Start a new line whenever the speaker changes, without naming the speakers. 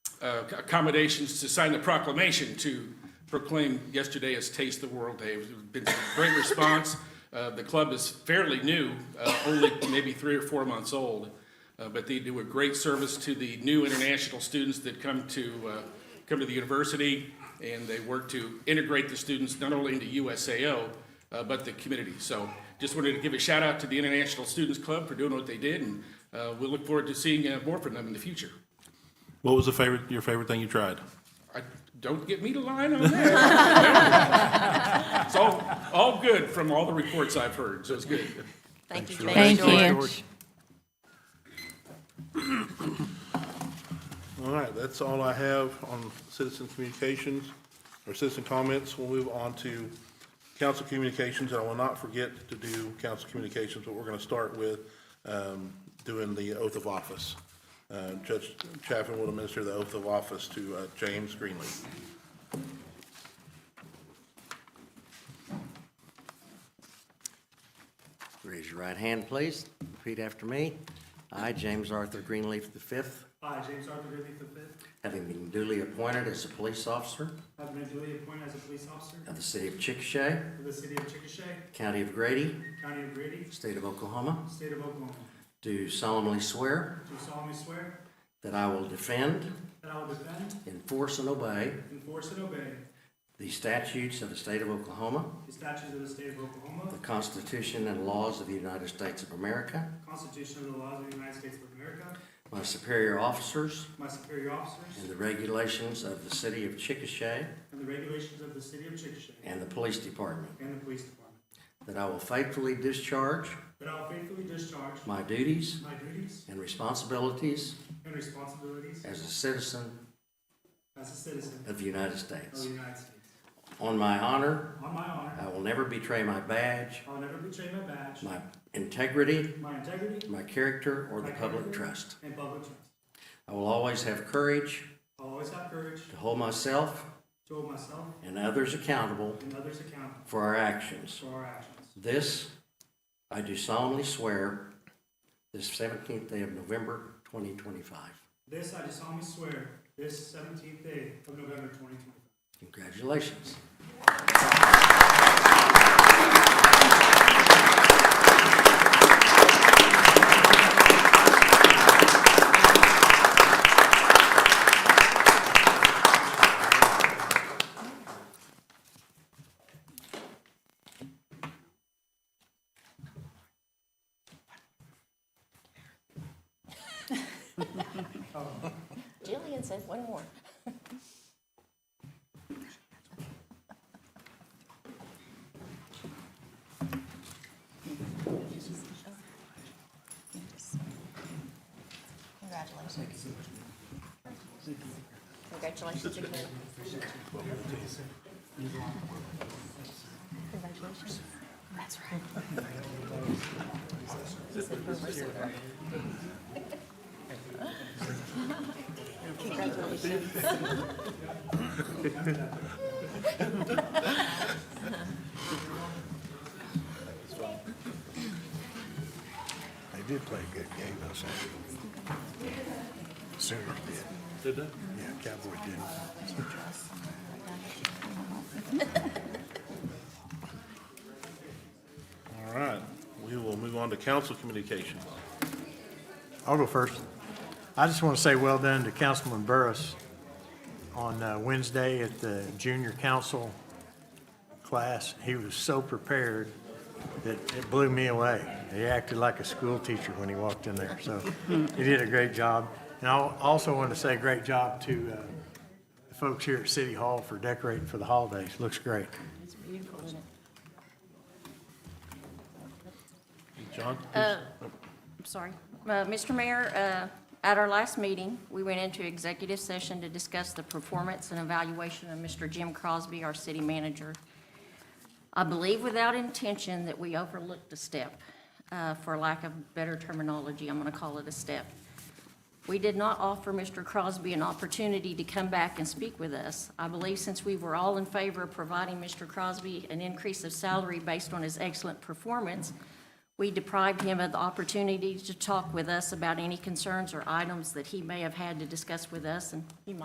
uh, accommodations to sign the proclamation to proclaim yesterday as Taste the World Day. It's been a great response. Uh, The club is fairly new, uh, only maybe three or four months old, uh, but they do a great service to the new international students that come to, uh, come to the university, and they work to integrate the students not only into USAO, uh, but the community. So just wanted to give a shout out to the International Students Club for doing what they did, and uh, we'll look forward to seeing uh, more from them in the future.
What was the favorite, your favorite thing you tried?
I- Don't get me to line on that. It's all, all good from all the reports I've heard, so it's good.
Thank you,
Thank
George.
you.
All right, that's all I have on citizen communications or citizen comments. We'll move on to council communications. I will not forget to do council communications, but we're going to start with um, doing the oath of office. Uh, Judge Chaffin will administer the oath of office to uh, James Greenlee.
Raise your right hand, please. Repeat after me. I, James Arthur Greenleaf V,
I, James Arthur Ridley V,
having been duly appointed as a police officer
have been duly appointed as a police officer
of the city of Chickasha,
for the city of Chickasha,
county of Grady,
county of Grady,
state of Oklahoma,
state of Oklahoma.
do solemnly swear
Do solemnly swear
that I will defend,
that I will defend,
enforce, and obey
enforce, and obey
the statutes of the state of Oklahoma,
the statutes of the state of Oklahoma,
the Constitution and laws of the United States of America,
the Constitution and the laws of the United States of America,
my superior officers,
my superior officers,
and the regulations of the city of Chickasha
and the regulations of the city of Chickasha
and the police department,
and the police department.
that I will faithfully discharge
That I will faithfully discharge
my duties
my duties
and responsibilities
and responsibilities
as a citizen
as a citizen
of the United
of
States.
the United States.
On my honor,
On my honor,
I will never betray my badge,
I will never betray my badge,
my integrity,
my integrity,
my character, or the
my
public
character,
trust.
And public trust.
I will always have courage
I'll always have courage
to hold myself
to hold myself
and others accountable
and others accountable
for our actions.
for our actions.
This, I do solemnly swear, this 17th day of November, 2025.
This I do solemnly swear, this seventeenth day of November twenty twenty-five.
Congratulations.
Jillian said one more. Congratulations. Congratulations again. Congratulations. That's right. Congratulations.
They did play a good game, though, so. Sooners did. Did they? Yeah, Cowboys did.
All right, we will move on to council communications.
I'll go first. I just want to say well done to Councilman Burris on uh, Wednesday at the junior council class. He was so prepared that it blew me away. He acted like a school teacher when he walked in there, so he did a great job. And I also want to say great job to uh, the folks here at City Hall for decorating for the holidays. Looks great.
It's beautiful, isn't it?
John?
I'm sorry. Uh, Mr. Mayor, uh, at our last meeting, we went into executive session to discuss the performance and evaluation of Mr. Jim Crosby, our city manager. I believe without intention that we overlooked a step, uh, for lack of better terminology, I'm going to call it a step. We did not offer Mr. Crosby an opportunity to come back and speak with us. I believe since we were all in favor of providing Mr. Crosby an increase of salary based on his excellent performance, we deprived him of the opportunity to talk with us about any concerns or items that he may have had to discuss with us, and he might